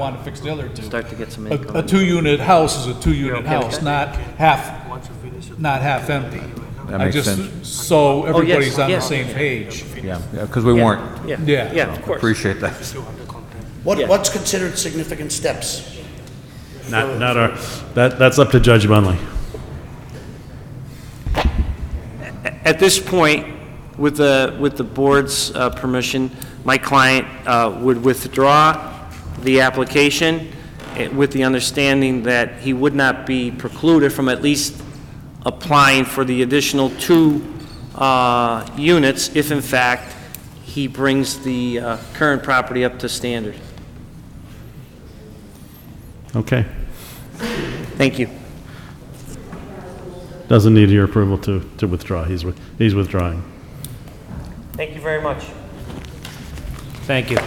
want to fix the other two. Start to get some A, a income. two-unit house is a two-unit house, not half, Once we finish it. not half empty. That I makes just- sense. So everybody's on the yes. same page. Yeah, because we weren't. Yeah, Yeah. yeah, of course. Appreciate that. What, Yeah. what's considered significant steps? Not, not our, that, that's up to Judge Bunley. At this point, with the, with the board's uh, permission, my client uh, would withdraw the application eh, with the understanding that he would not be precluded from at least applying for the additional two uh, units if in fact he brings the uh, current property up to standard. Okay. Thank you. Doesn't need your approval to, to withdraw. He's, with- he's withdrawing. Thank you very much. Thank you.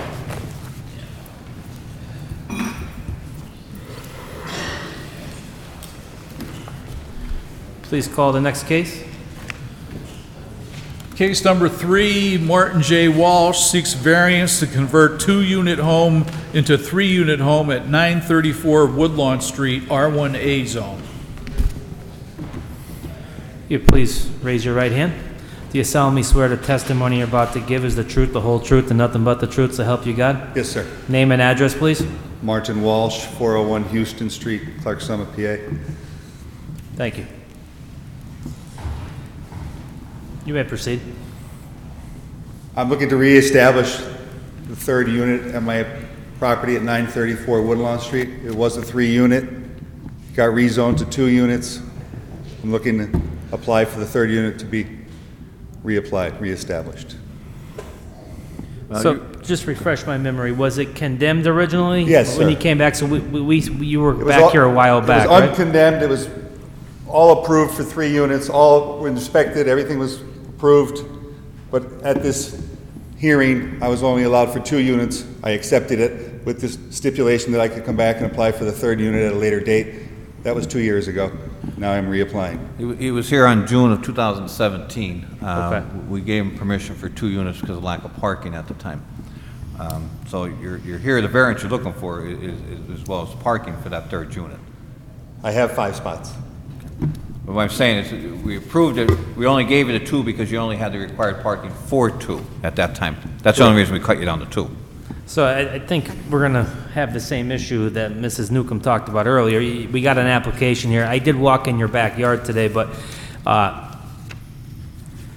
Please call the next case. Case number three, Martin J. Walsh seeks variance to convert two-unit home into three-unit home at 934 Woodlawn Street, R1A zone. You please raise your right hand. Do you solemnly swear the testimony you're about to give is the truth, the whole truth, and nothing but the truth, so help you God? Yes, sir. Name and address, please. Martin Walsh, 401 Houston Street, Clark Summit, PA. Thank you. You may proceed. I'm looking to reestablish the third unit at my property at 934 Woodlawn Street. It was a three-unit, got rezoned to two units. I'm looking to apply for the third unit to be reapplied, reestablished. Uh, So, just refresh my memory, was it condemned originally? Yes, When sir. you came back, so we, we, we- you were It was back all- here a while back, It was right? uncondemned, it was all approved for three units, all were inspected, everything was approved, but at this hearing, I was only allowed for two units. I accepted it with this stipulation that I could come back and apply for the third unit at a later date. That was two years ago. Now I'm reapplying. He wa- He was here on June of 2017. Uh, Okay. We gave him permission for two units because of lack of parking at the time. Um, So you're you're here, the variance you're looking for i- is is- as well as parking for that third unit. I have five spots. But what I'm saying is, that we approved it, we only gave you the two because you only had the required parking for two at that time. That's the only reason we cut you down to two. So I, I think we're gonna have the same issue that Mrs. Newcomb talked about earlier. Y- We got an application here. I did walk in your backyard today, but, uh,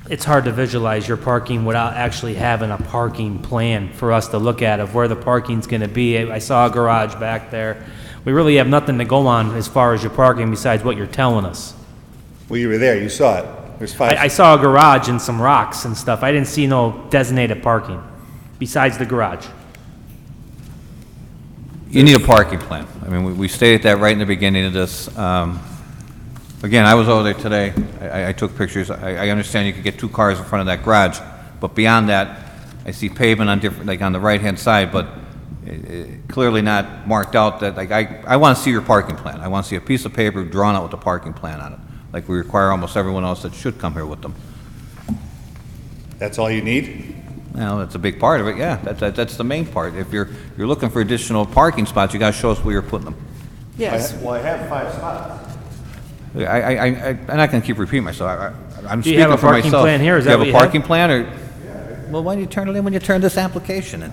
it's hard to visualize your parking without actually having a parking plan for us to look at of where the parking's gonna be. I I saw a garage back there. We really have nothing to go on as far as your parking besides what you're telling us. Well, you were there, you saw it. There's I, I five. saw a garage and some rocks and stuff. I didn't see no designated parking besides the garage. You need a parking plan. I mean, we- we stated that right in the beginning of this. Um, Again, I was over there today, I- I- I took pictures, I I understand you could get two cars in front of that garage, but beyond that, I see pavement on different, like on the right-hand side, but i- i- clearly not marked out that, like, I I want to see your parking plan. I want to see a piece of paper drawn out with a parking plan on it, like we require almost everyone else that should come here with them. That's all you need? Well, that's a big part of it, yeah, That- that- that's the main part. If you're you're looking for additional parking spots, you got to show us where you're putting them. Yes. Well, I have five spots. I, I, I, I'm not gonna keep repeating myself, I, I- I'm Do you have speaking a for parking myself. plan here? Is that what Do you you have have? a parking plan, or? Well, why do you turn it in when you turn this application in?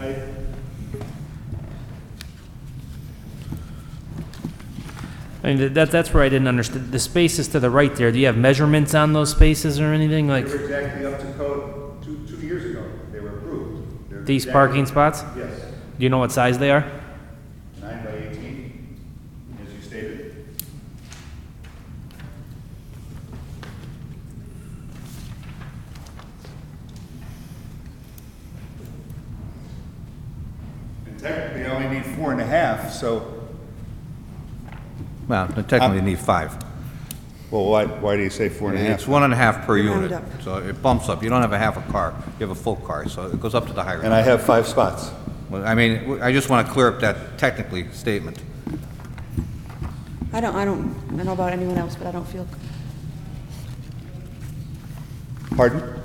I mean, th- that, that's where I didn't understand. The spaces to the right there, do you have measurements on those spaces or anything, like They were exactly up to code two, two years ago. They were approved. They're these exactly- parking spots? Yes. Do you know what size they are? Nine by 18, as you stated. And technically, I only need four and a half, so. Well, technically you Uh, need five. Well, why, why do you say four and a It's half? one and a half per Round unit, up. so it bumps up, you don't have a half a car, you have a full car, so it goes up to the higher. And I have five spots. Well, I mean, w- I just wanna clear up that technically statement. I don't, I don't, I don't know about anyone else, but I don't feel Pardon?